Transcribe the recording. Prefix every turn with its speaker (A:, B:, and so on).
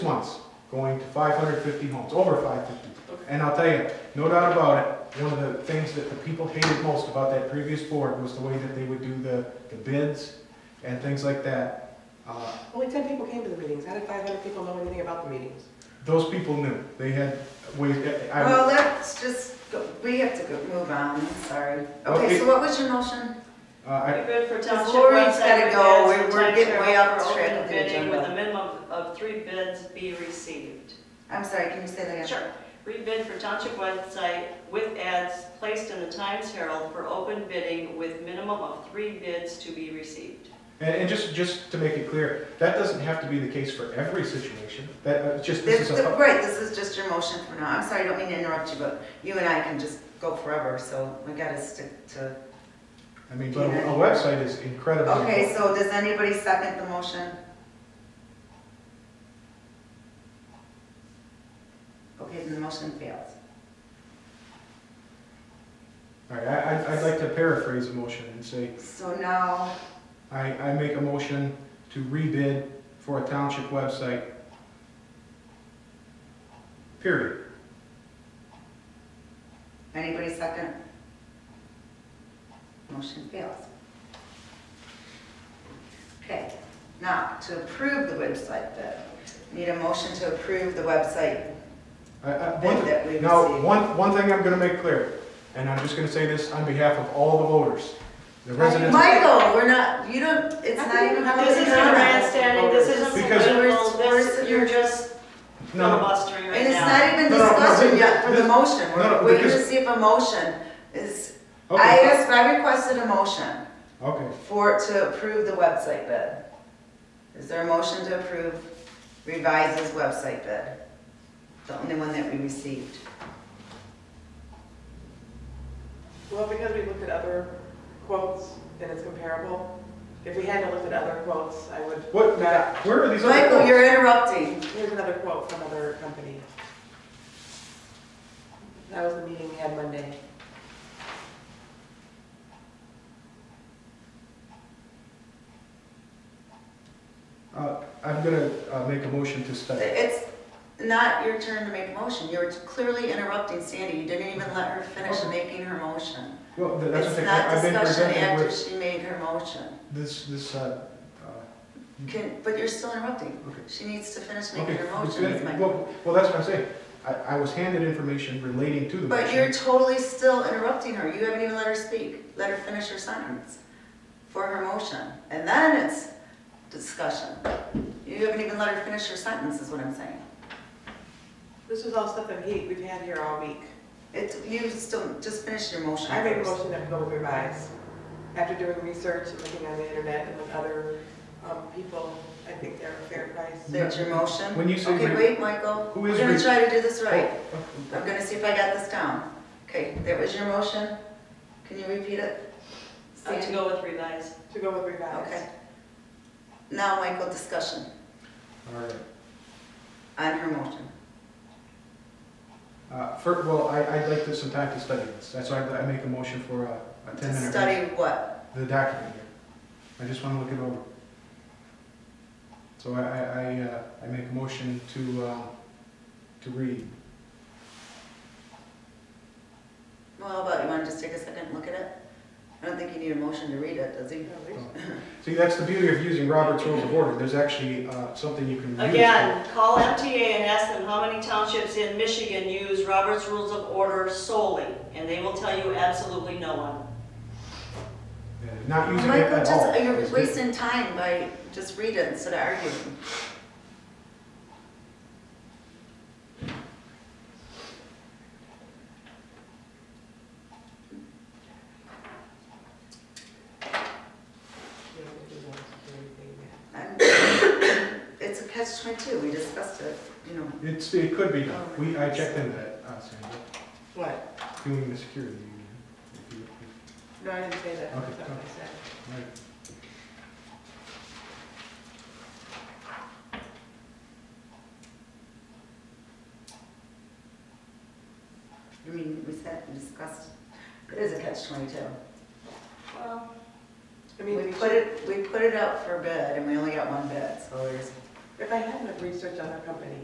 A: going to five hundred fifty homes, over five fifty.
B: Okay.
A: And I'll tell you, no doubt about it, one of the things that the people hated most about that previous board was the way that they would do the, the bids and things like that. Uh,
B: Only ten people came to the meetings, how did five hundred people know anything about the meetings?
A: Those people knew, they had ways, I,
C: Well, let's just, go- we have to go, move on, sorry. Okay,
A: Okay.
C: so what was your motion?
A: uh, I,
D: We bid for township
C: Lori's gotta
D: website
C: go.
D: repairs and
C: We're- we're getting way off
D: timeshare
C: track of
D: for open
C: the
D: bidding With
C: agenda.
D: a minimum of three bids be received.
C: I'm sorry, can you say that again?
D: Sure. Rebid for township website with ads placed in the Times Herald for open bidding with minimum of three bids to be received.
A: and, and just, just to make it clear, that doesn't have to be the case for every situation, that, uh, just, this is
C: This,
A: a,
C: right, this is just your motion for now. I'm sorry, I don't mean to interrupt you, but you and I can just go forever, so we gotta stick to.
A: I mean, but a a website is incredibly important.
C: Okay, so does anybody second the motion? Okay, then the motion fails.
A: All right, I, I'd- I'd like to paraphrase a motion and say,
C: So now,
A: I, I make a motion to rebid for a township website. Period.
C: anybody second? Motion fails. Okay, now to approve the website bid, need a motion to approve the website.
A: I- I-
C: Bid
A: one-
C: that we
A: Now,
C: received.
A: one, one thing I'm gonna make clear, and I'm just gonna say this on behalf of all the voters, the residents.
C: Michael, we're not, you don't, it's not even.
D: This isn't grandstanding, this isn't
A: Because-
D: political, this, you're just
A: No, no,
D: filibustering right
C: And it's
D: now.
C: not even
A: No, no, no,
C: discussion
A: this-
C: yet for the
A: this-
C: motion,
A: no,
C: we're
A: no,
C: waiting to
A: because-
C: see if a motion is, I
A: okay,
C: asked, I requested a motion
A: okay,
C: for, to approve the website bid. Is there a motion to approve revises website bid? The only one that we received.
B: Well, because we looked at other quotes and it's comparable, if we hadn't looked at other quotes, I would.
A: what, where are these other
C: Michael,
A: quotes?
C: you're interrupting.
B: Here's another quote from another company. That was the meeting we had Monday.
A: Uh, I'm gonna, uh, make a motion to study.
C: It's not your turn to make a motion, you're clearly interrupting Sandy, you didn't even let her finish
A: Okay.
C: making her motion.
A: Well, th- that's
C: It's
A: what they,
C: not
A: I've been
C: discussion
A: presented
C: after
A: with Mm-hmm.
C: she made her motion.
A: this, this, uh, uh,
C: Can, but you're still interrupting.
A: okay.
C: She needs to finish
A: Okay,
C: making her
A: let's
C: motion,
A: do
C: is
A: that.
C: my
A: Well, well, that's what I'm saying. I, I was handed information relating to the
C: But you're
A: motion.
C: totally still interrupting her. You haven't even let her speak. Let her finish her sentence for her motion. And then it's discussion. You haven't even let her finish her sentence, is what I'm saying.
B: This was all stuff that he, we've had here all week.
C: It's, you still, just finish your motion
B: I made a
C: first.
B: motion that we go with revise. After doing research and looking on the internet and with other um, people, I think they're a fair price.
C: That's your motion?
A: When you say
C: Okay,
A: re-
C: wait, Michael.
A: Who
C: We're
A: is
C: gonna
A: re-
C: try to do this right.
A: Oh,
C: I'm gonna see if I got this down. Okay, that was your motion. Can you repeat it?
D: Uh, To
C: Sandy?
D: go with revise.
B: To go with revise.
C: Okay. Now, Michael, discussion
A: All right.
C: on her motion.
A: Uh, fir- well, I, I'd like to some time to study this. That's why I I make a motion for a, a
C: To
A: ten minute.
C: study what?
A: The document here. I just wanna look it over. So I, I, I, uh, I make a motion to, uh, to read.
C: Well, how about, you wanna just take a second and look at it? I don't think you need a motion to read it, does he?
A: See, that's the beauty of using Robert's Rules of Order. There's actually, uh, something you can use.
D: Again, call MTA and ask them how many townships in Michigan use Robert's Rules of Order solely, and they will tell you absolutely no one.
A: Yeah, Not using it
C: Michael,
A: at all.
C: just, uh, you're
A: is-
C: wasting time by, just read it instead of arguing. I'm- It's a catch twenty-two, we discussed it, you know.
A: It's, it could be done.
C: Oh,
A: We, I checked into that, uh, Sandra.
B: What?
A: doing the security union.
B: No, I didn't say that.
A: Okay,
B: That's not what I said.
A: Right.
C: I mean, we sat and discussed, it is a catch twenty-two.
D: Well,
B: I mean,
C: We
B: we should,
C: put it, we put it out for bid and we only got one bid, so there's
B: if I hadn't have researched on our company,